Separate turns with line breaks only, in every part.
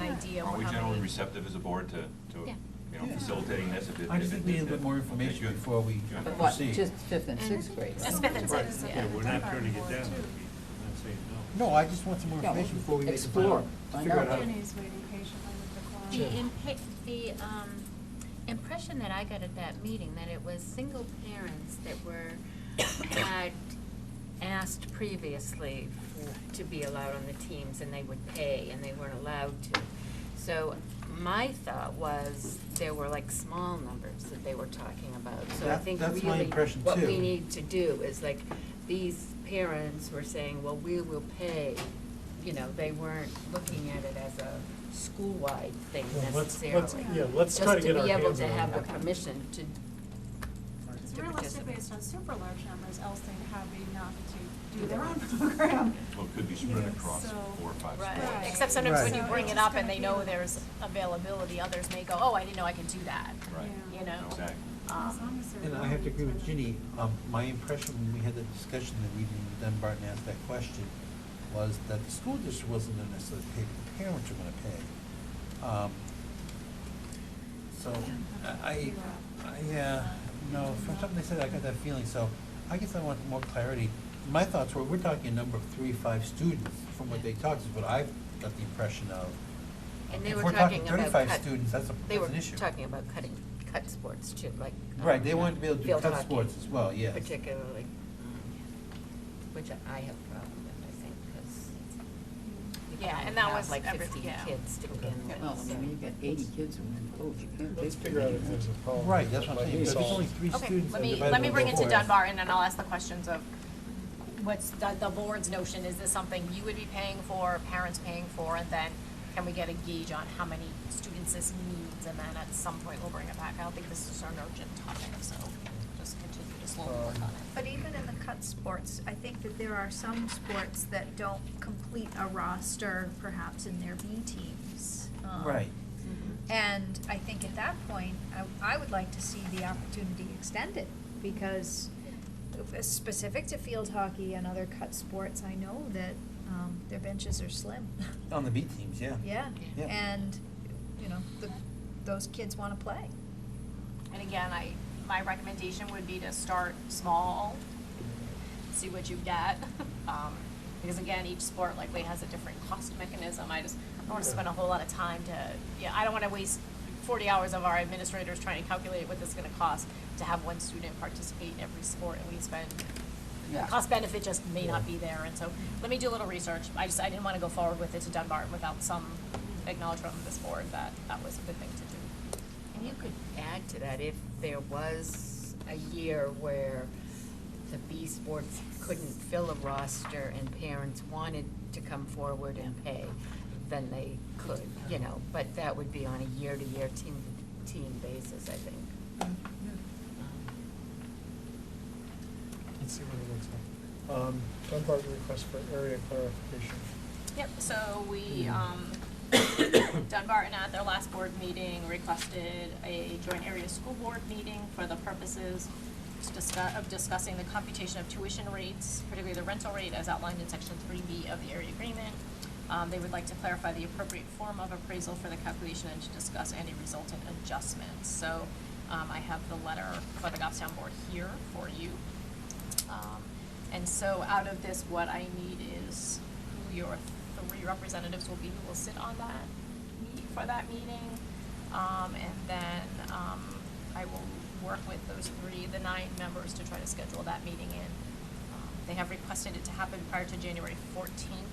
idea.
Aren't we
how
generally
many-
receptive as a board to, to,
Yeah.
you know,
Yeah.
facilitating this? if it-
I just
if
think
it-
we need a
if
little
it-
more
okay,
information
good.
before we
Good.
But what,
Proceed.
just fifth and sixth grade?
It's fifth and
Right.
sixth,
Yeah,
yeah.
we're not turning it down. I'm not saying no.
No, I just want some more
Yeah,
information before we make the
explore,
final.
find
figure it
out.
Jenny's waiting patiently with the
The
clock.
Sure.
impa- the, um, impression that I got at that meeting, that it was single parents that were, uh, had asked previously for- to be allowed on the teams, and they would pay, and they weren't allowed to. So my thought was, there were like small numbers that they were talking about, so I
That-
think
that's my
really
impression,
what
too.
we need to do is like, these parents were saying, well, we will pay, you know, they weren't looking at it as a school-wide thing
Well, let's-
necessarily.
let's- yeah, let's try to get our
Just to be
hands
able
around
to have
it.
the permission to,
It's
to
realistic
participate.
based on super large numbers, else they'd have enough to do their own program.
Well, it could be spread
Yeah,
across
so-
four or five
Right,
Right.
schools.
except sometimes when you
Right.
bring
So
it
it's
up and
gonna
they
be
know
like-
there's availability, others may go, oh, I didn't know I could do that,
Right,
you know?
exactly.
As long
Um,
as they're
And I have to agree with
willing to-
Ginny, um, my impression when we had the discussion that evening with Dunbar and asked that question was that the school district wasn't gonna necessarily pay, the parents are gonna pay. Um, So, I, I, uh, no, from something they said, I got that feeling, so I guess I want more clarity. My thoughts were, we're talking a number of three, five students, from what they talked, is what I got the impression of.
And they
If
were
we're
talking
talking
about
thirty-five
cut-
students, that's a,
They
that's
were
an issue.
talking about cutting, cut sports too, like. um,
Right, they wanted to be able to do
field
cut
hockey
sports as well, yes.
Particularly, which I have a problem with, I think, because you can
Yeah,
only
and that
have
was
like
every-
fifteen
yeah.
kids to begin
Yeah,
with.
Well, I mean, when you've got eighty kids in one coach, you can't take.
Let's figure out if there's a problem.
Right, that's what I'm
Like
saying,
we
but there's
saw.
only three
Okay,
students.
let
and
me,
divided
let me
over
bring it to
four.
Dunbar and then I'll ask the questions of what's the, the board's notion, is this something you would be paying for, parents paying for? And then can we get a gauge on how many students this needs and then at some point we'll bring it back. I don't think this is an urgent topic, so just continue to slowly work on it.
But even in the cut sports, I think that there are some sports that don't complete a roster perhaps in their B teams. um,
Right.
Mm-hmm.
And I think at that point, I, I would like to see the opportunity extended because if- specific to field hockey and other cut sports, I know that, um, their benches are slim.
On the B teams, yeah.
Yeah,
Yeah.
and, you know, the, those kids wanna play.
And again, I, my recommendation would be to start small, see what you get. Um, because again, each sport likely has a different cost mechanism. I just, I don't wanna spend a whole lot of time to, yeah, I don't wanna waste forty hours of our administrators trying to calculate what this is gonna cost to have one student participate in every sport and we spend, the
Yeah.
cost benefit just may not be there. And so, let me do a little research. I just, I didn't wanna go forward with it to Dunbar without some acknowledgement from this board that that was a good thing to do.
And you could add to that, if there was a year where the B sports couldn't fill a roster and parents wanted to come forward and pay, then they could, you know, but that would be on a year-to-year team, team basis, I think. Um,
Let's see what it looks like. Um, Dunbar request for area clarification.
Yep, so we, um, Dunbar and at their last board meeting requested a joint area school board meeting for the purposes to discuss, of discussing the computation of tuition rates, particularly the rental rate as outlined in section three B of the area agreement. Um, they would like to clarify the appropriate form of appraisal for the calculation and to discuss any resultant adjustments. So, um, I have the letter for the Goffstown board here for you. Um, And so out of this, what I need is who your three representatives will be who will sit on that, meet for that meeting. Um, And then um, I will work with those three, the nine members, to try to schedule that meeting in. Um, They have requested it to happen prior to January fourteenth,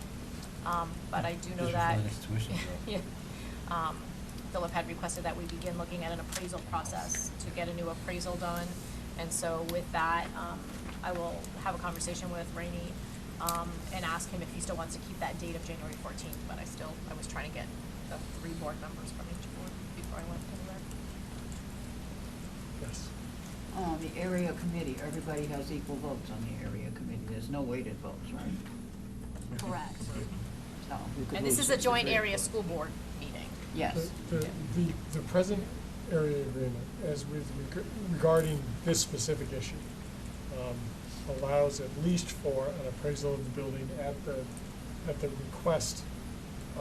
um, but I do
Just
know that.
before the next tuition bill.
Yeah. Um, Philip had requested that we begin looking at an appraisal process to get a new appraisal done. And so with that, um, I will have a conversation with Rainey, um, and ask him if he still wants to keep that date of January fourteenth, but I still, I was trying to get the three board members from each board before I went anywhere.
Yes.
Uh, the area committee, everybody has equal votes on the area committee, there's no weighted votes, right?
Correct.
So we could
And this
lose
is a
it.
joint area school board meeting.
Yes.
The, the- the, the present area agreement, as with reg- regarding this specific issue, um, allows at least for an appraisal of the building at the, at the request